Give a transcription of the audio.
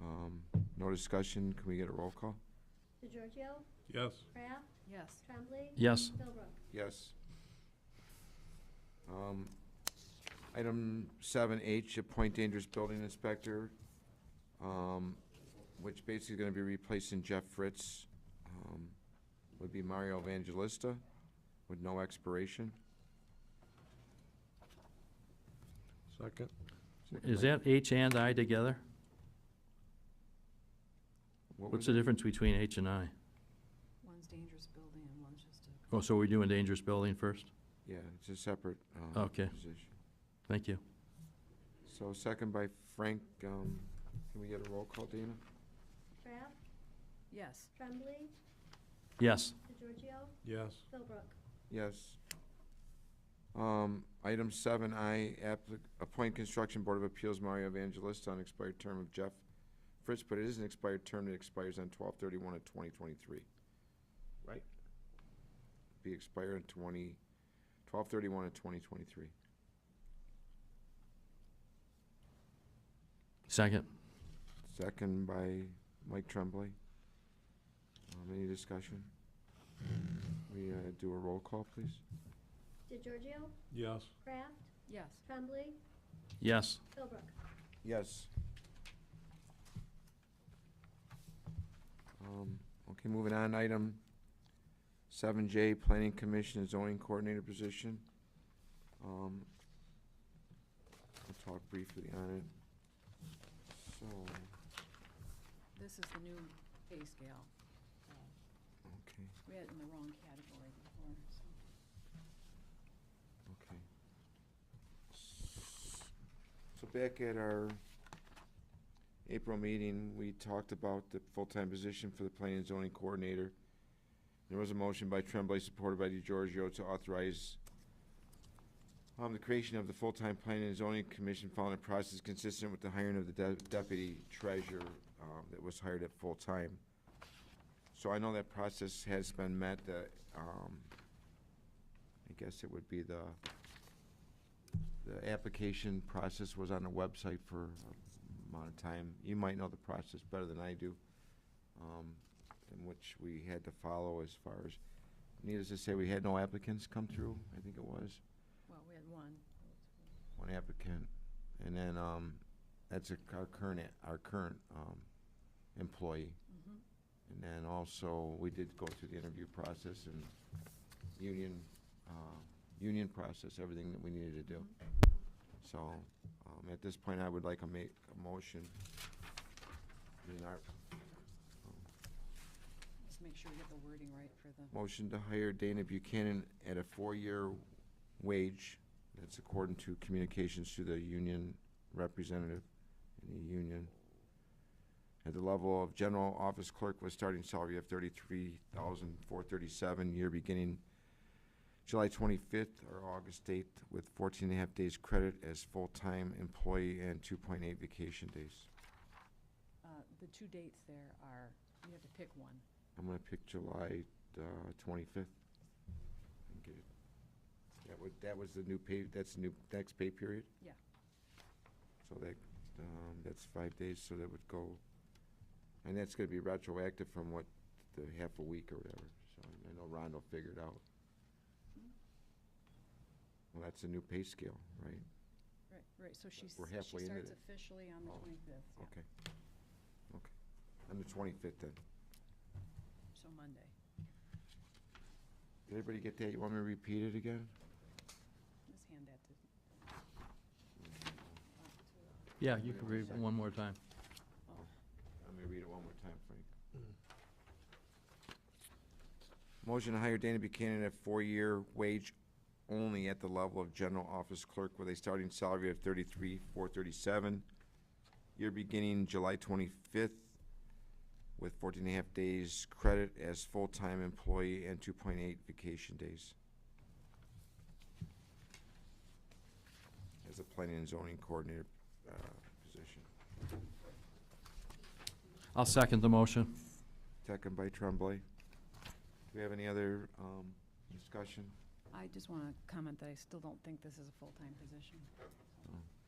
Um, No discussion, can we get a roll call? DeGiorgio, Yes. Kraft, Yes. Tremblay. Yes. Philbrook. Yes. Um, Item seven H, appoint dangerous building inspector, um, which basically gonna be replacing Jeff Fritz, um, would be Mario Evangelista with no expiration. Second. Is that H and I together? What was What's the it? difference between H and I? One's dangerous building and one's just a. Oh, so we're doing dangerous building first? Yeah, it's a separate, um, Okay. position. Thank you. So second by Frank, um, can we get a roll call, Dana? Kraft, Yes. Tremblay, Yes. DeGiorgio, Yes. Philbrook. Yes. Um, Item seven I, appoint Construction Board of Appeals Mario Evangelista on expired term of Jeff Fritz, but it is an expired term that expires on twelve thirty-one of twenty twenty-three. Right. Be expired in twenty, twelve thirty-one of twenty twenty-three. Second. Second by Mike Tremblay. Um, Any discussion? We uh, do a roll call, please? DeGiorgio, Yes. Kraft, Yes. Tremblay, Yes. Philbrook. Yes. Um, Okay, moving on, item seven J, Planning Commission and Zoning Coordinator position. Um, I'll talk briefly on it. So, This is the new pay scale. Uh, okay, We had it in the wrong category before, so. okay. So back at our April meeting, we talked about the full-time position for the Planning and Zoning Coordinator. There was a motion by Tremblay, supported by DeGiorgio, to authorize um, the creation of the full-time Planning and Zoning Commission following a process consistent with the hiring of the de- deputy treasurer um, that was hired at full-time. So I know that process has been met, the, um, I guess it would be the, the application process was on the website for a amount of time. You might know the process better than I do, um, in which we had to follow as far as, needless to say, we had no applicants come through, I think it was Well, we had one. one applicant, and then, um, that's a, our current, a- our current, um, employee. Mhm. And then also, we did go through the interview process and union, uh, union process, everything that we needed to do. So, um, at this point, I would like to make a motion. in our- Just make sure we get the wording right for the, Motion to hire Dana Buchanan at a four-year wage, that's according to communications to the union representative in the union. At the level of general office clerk with starting salary of thirty-three thousand four thirty-seven, year beginning July twenty-fifth or August eighth, with fourteen and a half days credit as full-time employee and two point eight vacation days. uh, the two dates there are, you have to pick one. I'm gonna pick July, uh, twenty-fifth. That was, that was the new pay, that's the new next pay period? Yeah. So that, um, that's five days, so that would go, and that's gonna be retroactive from what, the half a week or whatever, so I know Rondo figured out. Well, that's the new pay scale, right? Right, right, so she's, We're she halfway into starts it. officially on the Oh, twenty-fifth, yeah, Okay. Okay. On the twenty-fifth then. so Monday. Did everybody get that? You want me to repeat it again? Let's hand that to. Mm-hmm. Yeah, you can read it one more time. Let me read it one more time, Frank. Motion to hire Dana Buchanan at four-year wage only at the level of general office clerk with a starting salary of thirty-three, four thirty-seven. Year beginning July twenty-fifth with fourteen and a half days credit as full-time employee and two point eight vacation days. As a planning and zoning coordinator, uh, position. I'll second the motion. Second by Tremblay. Do we have any other um, discussion? I just want to comment that I still don't think this is a full-time position. Oh.